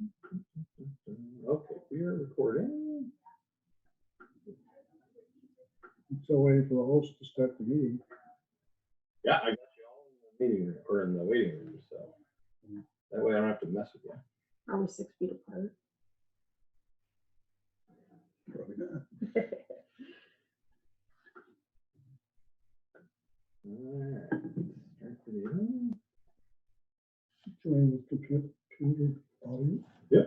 Mm, Okay, we are recording. Still waiting for the host to start the meeting. Yeah, I got you all in the meeting room or in the waiting room, so that way I don't have to mess with you. Are we six feet apart? Probably not. Alright, start the meeting. Join the computer, computer audio.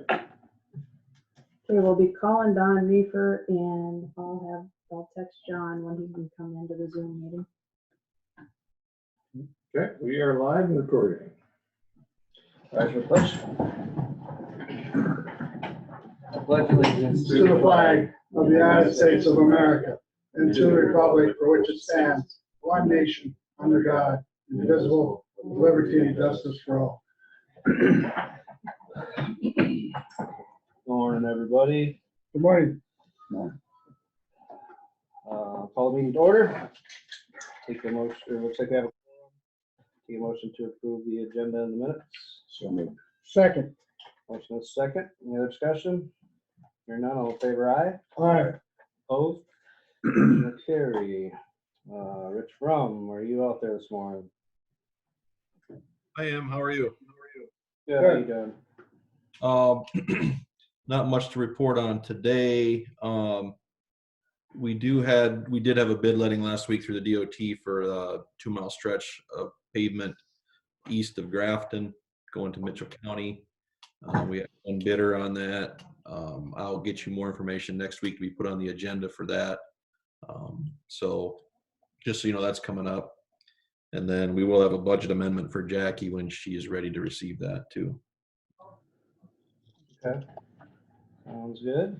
Okay, we'll be calling Don Reefer and I'll have, I'll text John when he can come into the Zoom meeting. Okay, we are live and recording. Rise for pledge. Pledge allegiance To the flag of the United States of America and to the republic for which it stands, one nation, under God, indivisible, with liberty and justice for all. Morning, everybody. Good morning. Uh, Call the meeting to order. Take a motion, it looks like I have a. Take a motion to approve the agenda in the minutes. Second, Motion is second. Any other discussion? Hearing none, all in favor, aye. aye, Opposed? Motion Carry. Uh, Rich Fromm, are you out there this morning? I am. How are you? Good, how you doing? Um, not much to report on today. Um, we do had we did have a bid letting last week through the DOT for a two mile stretch of pavement east of Grafton going to Mitchell County. Uh, we have one bidder on that. Um, I'll get you more information next week to be put on the agenda for that. Um, so just so you know, that's coming up. And then we will have a budget amendment for Jackie when she is ready to receive that too. Sounds good.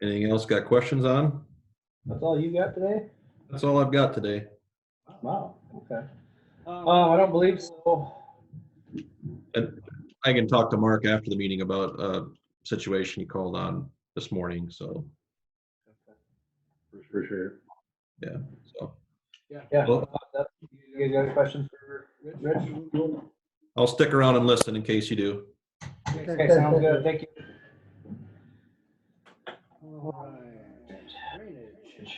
Anything else got questions on? That's all you got today? That's all I've got today. Wow, okay. Um, I don't believe so. I can talk to Mark after the meeting about a situation he called on this morning, so, For sure. so. Yeah. Well- that- You guys got a question for Rich? I'll stick around and listen in case you do. Okay, sounds good, thank you. Alright, drainage.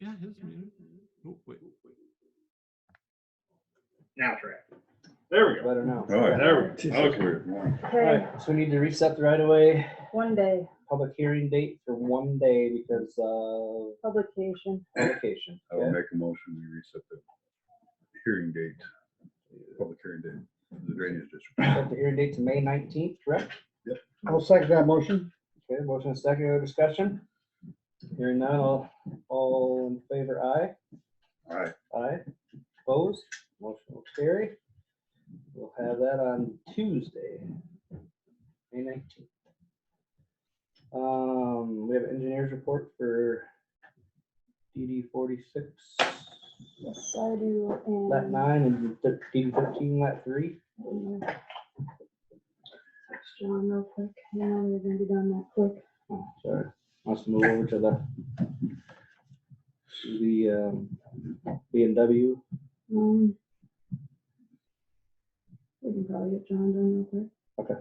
Yeah, his muted. Oh, wait. Now try. it. There we go. Better now. Oh, There we go. Okay. Okay, Alright, so we need to reset the right of way, one day, public hearing date for one day because of publication. publication. I will make a motion, we reset the hearing date, public hearing date, for the drainage district. Set the hearing date to May nineteenth, correct? I'll second that motion. Okay, motion and second, other discussion? Hearing none, all, all in favor, aye? All right, Aye. Opposed? Motion will carry. We'll have that on Tuesday, May nineteenth. Um, we have engineers report for DD forty-six, Yes, I do. lat And nine, and thir- DD thirteen, lat three. I'm gonna text John real quick. Hang on, we're gonna be done that quick. Oh, Sorry, must move over to the to the, um, B and W. Um, We can probably get John done real quick.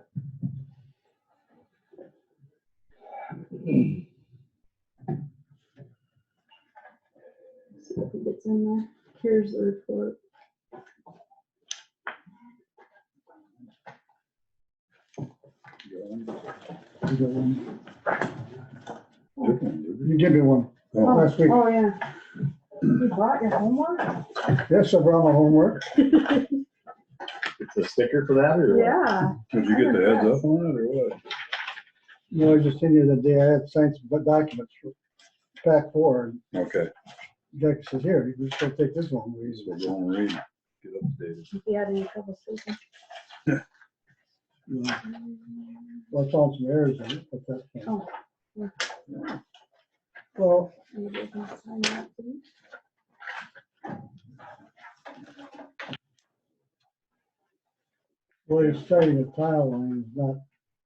See if it gets in there. Here's the report. You got one? good one, You give me one. Oh. Last week, Oh, yeah. You brought your homework? yes, I brought my homework. It's a sticker for that or? Yeah. did you get the heads up on it or what? No, I just sent you the day I had signed some documents for back four. and Okay, Jack says, here, you just don't take this one. We so go and read, get updated. If you had any trouble sleeping. Well, Hum, I found some errors in it, but that's. Oh. Well, Maybe I can sign that for you. where you're starting a tile line is not